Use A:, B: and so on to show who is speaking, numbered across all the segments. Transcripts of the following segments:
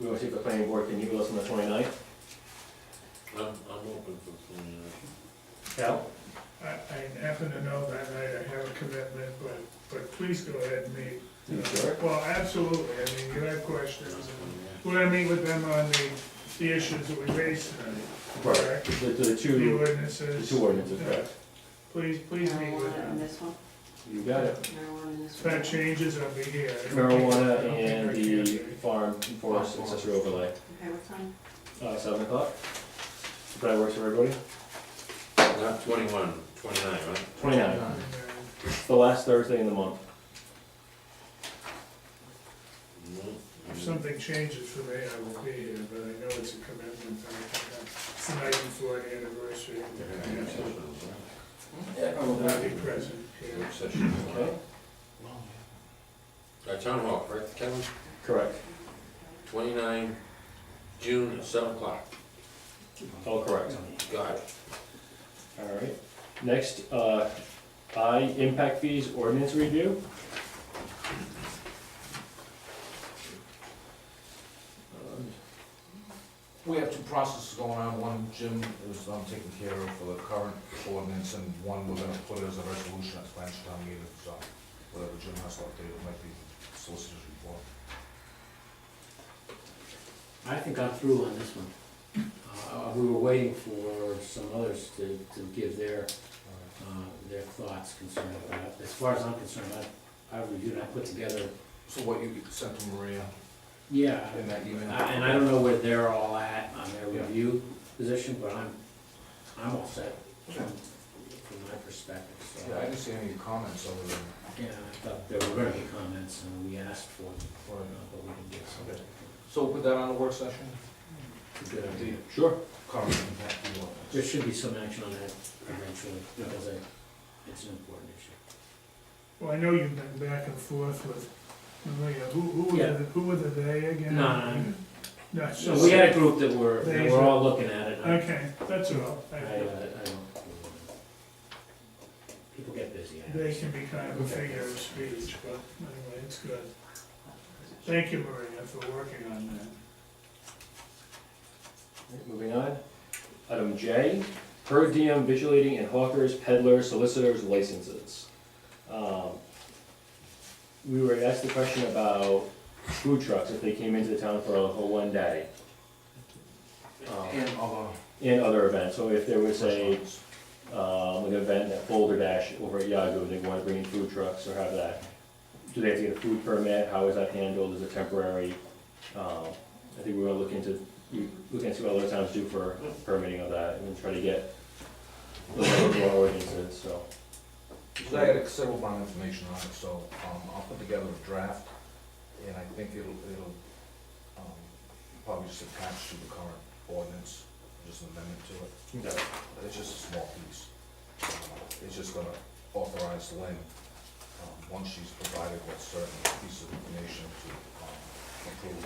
A: We want to see if the planning board can meet with us on the 29th.
B: I'm, I'm open for twenty-nine.
A: Al?
C: I, I happen to know that night I have a commitment, but, but please go ahead and meet.
A: You sure?
C: Well, absolutely, I mean, you have questions, and we're gonna meet with them on the, the issues that we raised tonight,
A: Right.
C: correct?
A: The, the
C: The
A: two, the
C: ordinances,
A: two ordinances, correct?
C: please, please meet with
D: Marijuana
C: them.
D: in this one,
A: You got it.
D: marijuana in this
C: If
D: one.
C: that changes, I'll be here. I don't think- I
A: Marijuana
C: don't think
A: and
C: I can
A: the
C: do it.
A: farm forest accessory overlay,
D: Okay, what time?
A: uh, seven o'clock. If that works for everybody.
B: Not twenty-one, twenty-nine, right?
A: 29th.
C: And, uh,
A: It's the last Thursday in the month.
B: Mhm.
C: uh, If something changes for me, I will be here, but I know it's a commitment, I have, it's the night before the anniversary, I have to- I will not be present here.
B: Work session.
A: Okay.
B: Uh, town hall, right, Kevin?
A: Correct.
B: Twenty-nine, June, at seven o'clock,
A: All correct.
B: got it.
A: All right. Next, uh, I, impact fees ordinance review. Um,
E: We have two processes going on, one Jim is um, taking care of for the current ordinance, and one we're gonna put as a resolution at the next town meeting, so whatever Jim has to update, it might be solicitor's report.
F: I think I'm through on this one. Uh, We were waiting for some others to, to give their, uh, their thoughts concerning that. As far as I'm concerned, I, I reviewed, I put together,
E: So what you sent to Maria
F: yeah,
E: in that
F: I-
E: email?
F: Uh, and I don't know where they're all at on their
E: Yeah.
F: review position, but I'm, I'm all set
E: Okay.
F: from from my perspective, so.
E: Yeah, I didn't see any comments other than,
F: Yeah, I thought there were gonna be comments, and we asked for them,
E: or,
F: uh, but we didn't get some.
E: so put that on the work session,
F: Good idea. Sure.
E: current impact of the ordinance.
F: There should be some action on that eventually,
E: Yeah.
F: because I- it's an important issue.
C: Well, I know you've been back and forth with Maria, who, who were
F: Yeah.
C: the, who were the they again?
F: No, no,
C: No, it's
F: So
C: just-
F: we had a group that were, that were all looking at it. and I-
C: Okay, that's all,
F: I,
C: I-
F: uh, I don't. People get busy. I
C: they
F: understand.
C: can be kind of a figure of speech, but anyway, it's good. Thank you, Maria, for working on that.
A: Moving on. Item J, per diem vigilating and hawkers, peddlers, solicitors, licenses. Um, We were asked the question about food trucks, if they came into the town for a a one day. um,
E: And other
A: And other events, so if there was a,
E: restaurants.
A: um, an event at Boulder Dash over at Yago, they wanna bring in food trucks or have that. Do they have to get a food permit, how is that handled, is it temporary? Um, I think we're gonna look into, you, look into what other towns do for permitting of that, and then try to get the local ordinances, so.
E: So I had a considerable amount of information on it, so, um, I'll put together a draft, and I think it'll, it'll, um, probably just attach to the current ordinance, just an amendment to it,
A: Okay.
E: it's just a small piece. Um, It's just gonna authorize Lynn, um, once she's provided with certain pieces of information to, um, approve.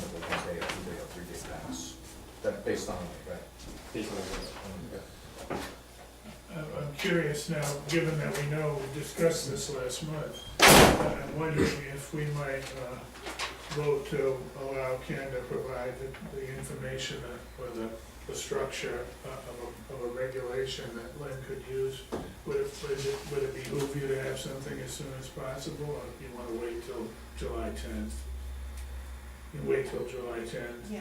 E: Whether it's a day, a two-day, or three-day pass, that, based on, right?
A: Based on that.
C: I'm- Uh, I'm curious now, given that we know, we discussed this last month, I'm wondering if we might uh, vote to allow Ken to provide the- the information or the, the structure uh, of a, of a regulation that Lynn could use. Would it, would it, would it behoove you to have something as soon as possible, or do you wanna wait till July tenth? You wait till July tenth?
D: Yeah.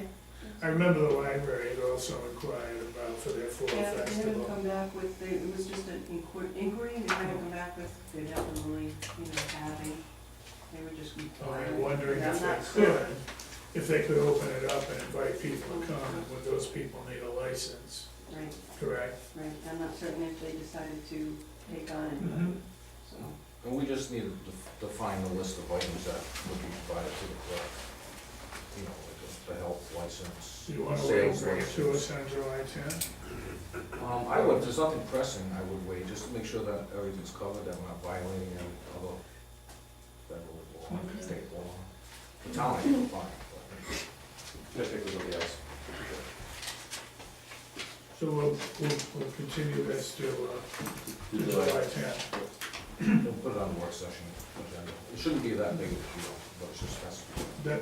C: I remember the library had also inquired about for their fall
D: Yeah, they haven't
C: festival.
D: come back with, they- it was just an inqu- inquiry, they haven't come back with, they're definitely, you know, having, they were just.
C: Oh, I'm wondering
D: I'm
C: if
D: not
C: they
D: sure.
C: could, if they could open it up and invite people to come, and would those people need a license,
D: Right,
C: correct?
D: right, I'm not certain if they decided to take on anybody,
C: Mhm.
D: so.
E: And we just need to def- define the list of items that would be provided to the clerk. You know, like the- the health license.
C: Do you wanna wait
E: sales
C: for it to
E: license.
C: us on July tenth?
E: Um, I would, if there's nothing pressing, I would wait, just to make sure that everything's covered, that we're not violating any other federal law, state law. The town I can find, but.
A: Just pick with somebody else.
C: So we'll, we'll, we'll continue this to, uh,
A: Do
C: to
A: the-
C: July tenth.
E: We'll put it on the work session agenda. It shouldn't be that big of a deal, but it's just, that's.
C: That,